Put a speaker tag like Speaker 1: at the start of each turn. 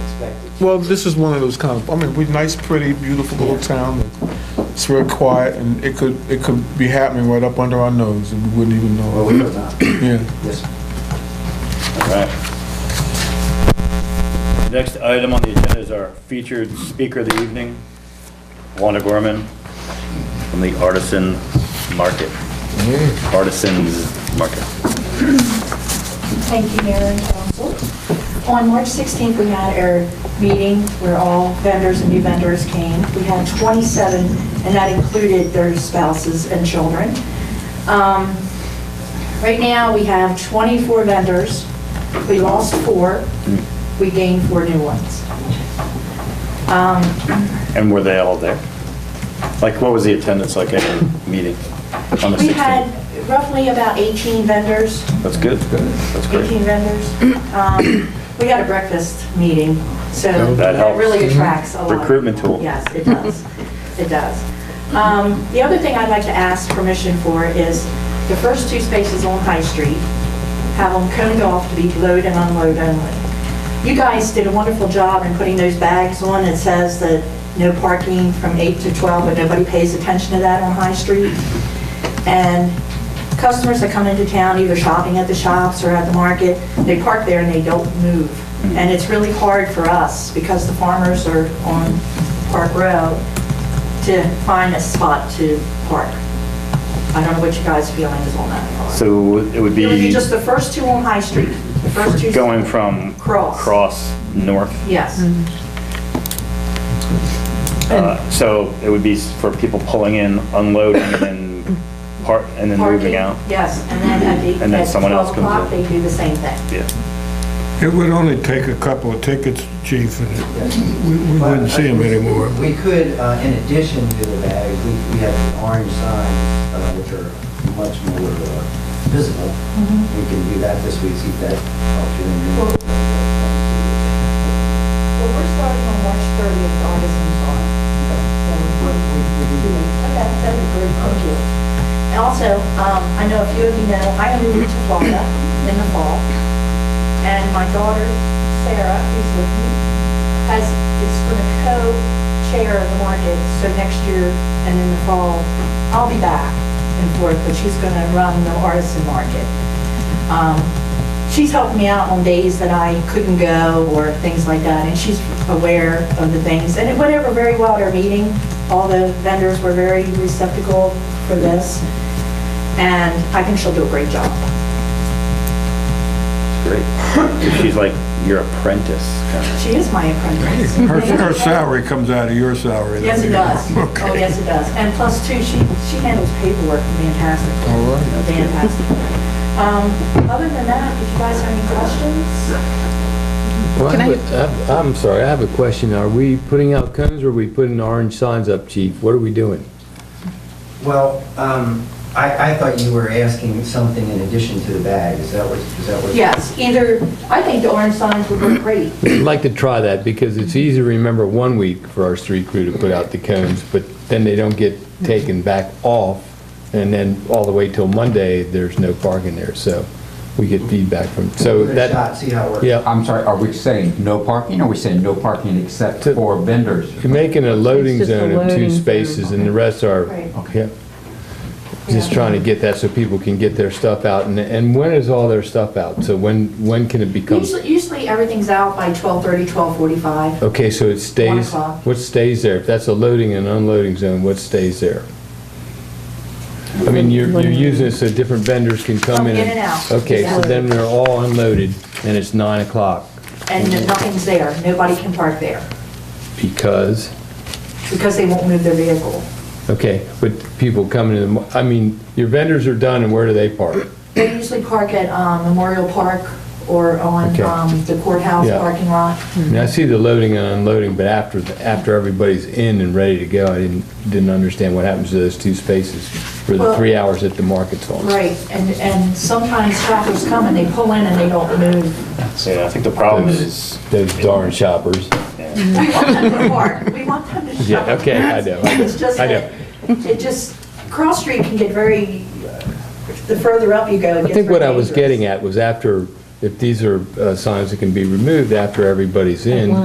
Speaker 1: expected.
Speaker 2: Well, this is one of those kind of, I mean, we're nice, pretty, beautiful little town. It's real quiet and it could, it could be happening right up under our nose and we wouldn't even
Speaker 1: Well,
Speaker 2: know.
Speaker 1: we will not.
Speaker 2: Yeah.
Speaker 1: Yes.
Speaker 3: Right. Next item on the agenda is our featured speaker of the evening, Wanda Gorman from the Artisan Market. Artisans Market.
Speaker 4: Thank you, Mayor and Council. On March 16th, we had our meeting where all vendors and new vendors came. We had 27, and that included their spouses and children. Um, Right now, we have 24 vendors. We lost four.
Speaker 3: Hmm.
Speaker 4: We gained four new ones. Um,
Speaker 3: And were they all there? Like, what was the attendance like at the meeting on the 16th?
Speaker 4: We had roughly about 18 vendors.
Speaker 3: That's good. That's great.
Speaker 4: 18 vendors. Um, We had a breakfast meeting, so
Speaker 3: Oh, That
Speaker 4: that
Speaker 3: helps. Mm-hmm.
Speaker 4: really attracts a lot.
Speaker 3: Recruitment tool.
Speaker 4: Yes, it does. It does. Um, The other thing I'd like to ask permission for is the first two spaces on High Street, have them coned off to be load and unload only. You guys did a wonderful job in putting those bags on that says that no parking from 8 to 12, but nobody pays attention to that on High Street. And customers that come into town, either shopping at the shops or at the market, they park there and they don't move.
Speaker 3: Mm-hmm.
Speaker 4: And it's really hard for us, because the farmers are on Park Row, to find a spot to park. I don't know what you guys' feeling is on that.
Speaker 3: So it would
Speaker 4: It would be
Speaker 3: be
Speaker 4: just the first two on High Street, the first two.
Speaker 3: going from
Speaker 4: Cross.
Speaker 3: Cross north.
Speaker 4: Yes,
Speaker 3: Uh, So it would be s- for people pulling in, unloading, and then part, and then
Speaker 4: parking,
Speaker 3: moving out.
Speaker 4: yes, and then at the,
Speaker 3: And then
Speaker 4: at
Speaker 3: someone else
Speaker 4: 12
Speaker 3: comes
Speaker 4: o'clock,
Speaker 3: in.
Speaker 4: they do the same thing.
Speaker 3: Yeah.
Speaker 5: It would only take a couple of tickets, chief, and we we
Speaker 1: But,
Speaker 5: wouldn't see them
Speaker 1: uh,
Speaker 5: anymore.
Speaker 1: We could, uh, in addition to the bags, we we have the orange signs, uh, which are much more uh, visible. We can do that this week, see if that helps you in your...
Speaker 4: Well, we're starting on March 30th, Artisans on. Okay, that'd be great, thank you. And also, um, I know a few of you know, I am moving to Florida in the fall, and my daughter, Sarah, who's with me, has, is going to co-chair the market, so next year and in the fall, I'll be back and forth, but she's going to run the artisan market. Um, she's helped me out on days that I couldn't go or things like that, and she's aware of the things. And it went over very well at our meeting. All the vendors were very receptacle for this, and I think she'll do a great job.
Speaker 3: Great. She's like your apprentice, kind of.
Speaker 4: She is my apprentice.
Speaker 5: Her her salary comes out of your salary.
Speaker 4: Yes, it does.
Speaker 5: Okay.
Speaker 4: Oh, yes, it does. And plus too, she, she handles paperwork fantastic.
Speaker 2: All right.
Speaker 4: Fantastic. Um, other than that, if you guys have any questions?
Speaker 6: Well, I have a- I- I'm sorry, I have a question. Are we putting out cones or are we putting orange signs up, chief? What are we doing?
Speaker 1: Well, um, I I thought you were asking something in addition to the bag, is that what, is that what?
Speaker 4: Yes, either, I think the orange signs would look great.
Speaker 6: I'd like to try that because it's easy to remember one week for our street crew to put out the cones, but then they don't get taken back off. And then all the way till Monday, there's no parking there. So we get feedback from, so
Speaker 1: Give it a shot,
Speaker 6: that,
Speaker 1: see how it works.
Speaker 6: yeah,
Speaker 7: I'm sorry, are we saying no parking, or are we saying no parking except
Speaker 6: To-
Speaker 7: for vendors?
Speaker 6: you're making a loading
Speaker 8: It's just a
Speaker 6: zone of
Speaker 8: loading
Speaker 6: two
Speaker 8: zone.
Speaker 6: spaces and the rest are,
Speaker 4: Right.
Speaker 6: yeah. Just trying to get that so people can get their stuff out. And, and when is all their stuff out? So when, when can it become?
Speaker 4: Usually, usually everything's out by 12:30, 12:45.
Speaker 6: Okay, so it stays,
Speaker 4: o'clock.
Speaker 6: what stays there? If that's a loading and unloading zone, what stays there? I mean, you're, you're using it so different vendors can come
Speaker 4: Come
Speaker 6: in.
Speaker 4: in and out.
Speaker 6: Okay, so then they're all unloaded and it's nine o'clock
Speaker 4: And nothing's there, nobody can park there,
Speaker 6: because,
Speaker 4: because they won't move their vehicle.
Speaker 6: okay, but people coming in, the mo- I mean, your vendors are done and where do they park?
Speaker 4: They usually park at um, Memorial Park or on
Speaker 6: Okay.
Speaker 4: um, the courthouse
Speaker 6: Yeah.
Speaker 4: parking lot.
Speaker 6: Now, I see the loading and unloading, but after, the- after everybody's in and ready to go, I didn't, didn't understand what happens to those two spaces for the
Speaker 4: Well-
Speaker 6: three hours that the market's on.
Speaker 4: Right, and, and sometimes shoppers come and they pull in and they don't move.
Speaker 3: Yeah, I think the problem is,
Speaker 6: Those those darn shoppers.
Speaker 3: yeah,
Speaker 4: We want them to park, we want them to shop.
Speaker 6: Yeah, okay, I know, I know,
Speaker 4: It's just
Speaker 6: I
Speaker 4: that, it just, Cross Street can get very, uh, the further up you go, it
Speaker 6: I
Speaker 4: gets
Speaker 6: think what I
Speaker 4: very
Speaker 6: was
Speaker 4: dangerous.
Speaker 6: getting at was after, if these are uh, signs that can be removed after everybody's in,